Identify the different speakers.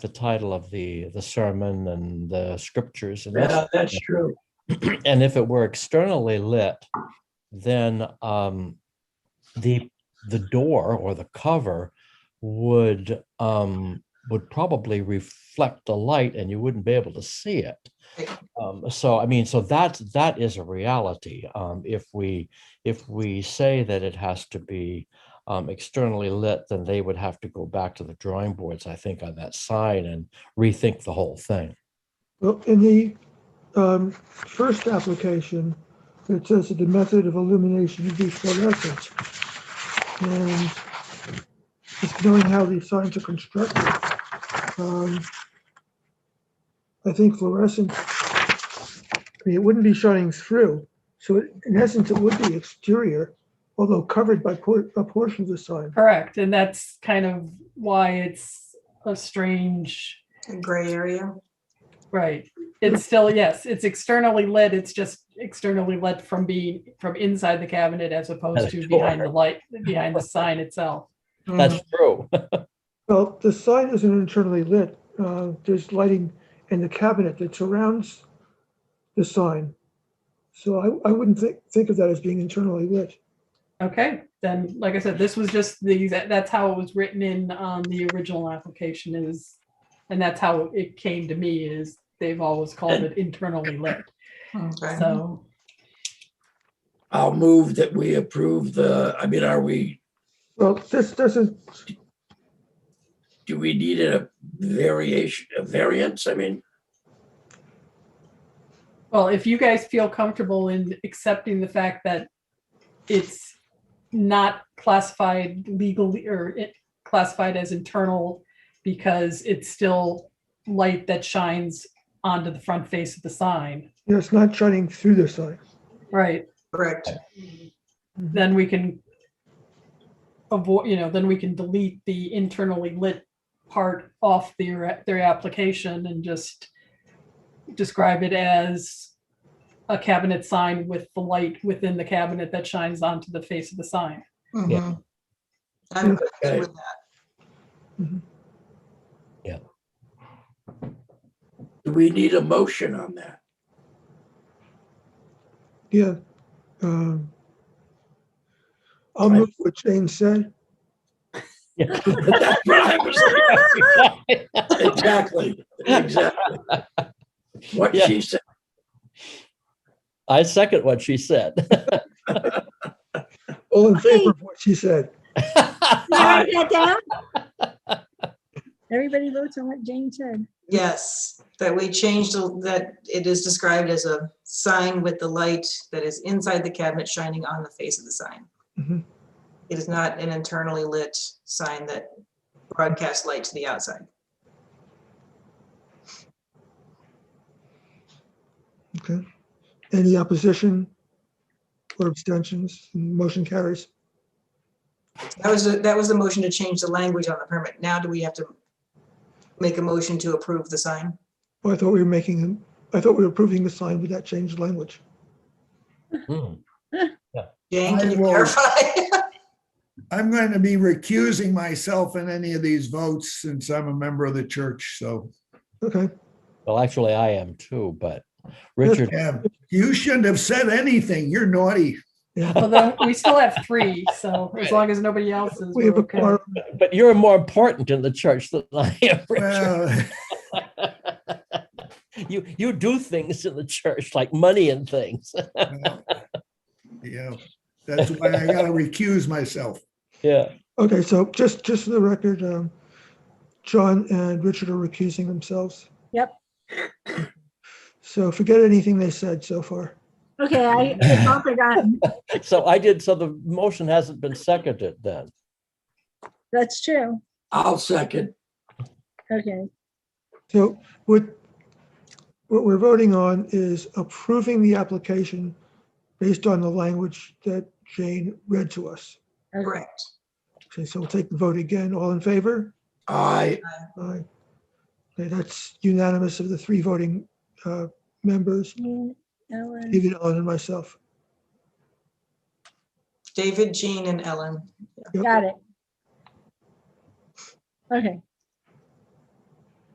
Speaker 1: the title of the, the sermon and the scriptures and that.
Speaker 2: Yeah, that's true.
Speaker 1: And if it were externally lit, then um, the, the door or the cover would, um, would probably reflect the light and you wouldn't be able to see it. Um, so, I mean, so that, that is a reality. Um, if we, if we say that it has to be um, externally lit, then they would have to go back to the drawing boards, I think, on that sign and rethink the whole thing.
Speaker 3: Well, in the um, first application, it says that the method of illumination would be fluorescent. And just knowing how these signs are constructed, um, I think fluorescent, I mean, it wouldn't be shining through. So it- in essence, it would be exterior, although covered by por- a portion of the sign.
Speaker 4: Correct, and that's kind of why it's a strange,
Speaker 5: a gray area.
Speaker 4: right? It's still, yes, it's externally lit, it's just externally lit from being, from inside the cabinet as opposed to behind the light, behind the sign itself.
Speaker 1: That's true.
Speaker 3: Well, the sign isn't internally lit. Uh, There's lighting in the cabinet that surrounds the sign. So I, I wouldn't think, think of that as being internally lit.
Speaker 4: Okay, then, like I said, this was just the, that- that's how it was written in on the original application is, and that's how it came to me is they've always called it internally lit,
Speaker 5: Okay.
Speaker 4: so.
Speaker 2: I'll move that we approve the, I mean, are we,
Speaker 3: Well, this doesn't,
Speaker 2: do we need a variation, a variance? I mean,
Speaker 4: Well, if you guys feel comfortable in accepting the fact that it's not classified legally or it classified as internal because it's still light that shines onto the front face of the sign,
Speaker 3: you know, it's not shining through the sign.
Speaker 4: right?
Speaker 5: Correct.
Speaker 4: Then we can avoid, you know, then we can delete the internally lit part off their, their application and just describe it as a cabinet sign with the light within the cabinet that shines onto the face of the sign.
Speaker 6: Mm-hmm.
Speaker 5: Mhm. I'm
Speaker 2: Okay.
Speaker 5: good with that.
Speaker 2: do we need a motion on that?
Speaker 3: Yeah. Um, I'll
Speaker 2: Right.
Speaker 3: move what Jane said.
Speaker 2: That's what I was Exactly, exactly. What
Speaker 1: Yeah.
Speaker 2: she said,
Speaker 1: I second what she said.
Speaker 3: All in favor of what she said.
Speaker 7: You write that down? Everybody votes on what Jane said.
Speaker 5: Yes, that we changed, the- that it is described as a sign with the light that is inside the cabinet shining on the face of the sign.
Speaker 6: Mm-hmm.
Speaker 3: Mhm.
Speaker 5: It is not an internally lit sign that broadcasts light to the outside.
Speaker 3: Okay. Any opposition or abstentions? Motion carries.
Speaker 5: That was, the- that was the motion to change the language on the permit. Now do we have to make a motion to approve the sign?
Speaker 3: Well, I thought we were making, I thought we were approving the sign with that changed language.
Speaker 1: Hmm.
Speaker 5: Jane, can
Speaker 6: I
Speaker 5: you
Speaker 6: will.
Speaker 5: clarify?
Speaker 6: I'm going to be recusing myself in any of these votes since I'm a member of the church, so
Speaker 3: Okay.
Speaker 1: Well, actually, I am too, but Richard,
Speaker 6: yeah, you shouldn't have said anything. You're naughty.
Speaker 4: Well, then we still have three, so as long as nobody else is,
Speaker 3: We have
Speaker 4: we're
Speaker 3: a
Speaker 4: okay.
Speaker 3: quorum.
Speaker 1: but you're more important in the church than I am, Richard.
Speaker 6: Well,
Speaker 1: You, you do things in the church like money and things.
Speaker 6: well, Yeah, that's why I gotta recuse myself.
Speaker 1: Yeah.
Speaker 3: Okay, so just, just for the record, um, John and Richard are recusing themselves.
Speaker 7: Yep.
Speaker 3: So forget anything they said so far.
Speaker 7: Okay, I, it's all forgotten.
Speaker 1: So I did, so the motion hasn't been seconded then.
Speaker 7: That's true.
Speaker 2: I'll second.
Speaker 7: Okay,
Speaker 3: So what, what we're voting on is approving the application based on the language that Jane read to us.
Speaker 7: okay.
Speaker 5: Correct.
Speaker 3: Okay, so we'll take the vote again. All in favor?
Speaker 2: I,
Speaker 3: Aye. Okay, that's unanimous of the three voting, uh, members,
Speaker 7: Me, Ellen,
Speaker 3: David, Ellen, and myself.
Speaker 5: David, Jean, and Ellen.
Speaker 3: Yep.
Speaker 7: Got it. Okay,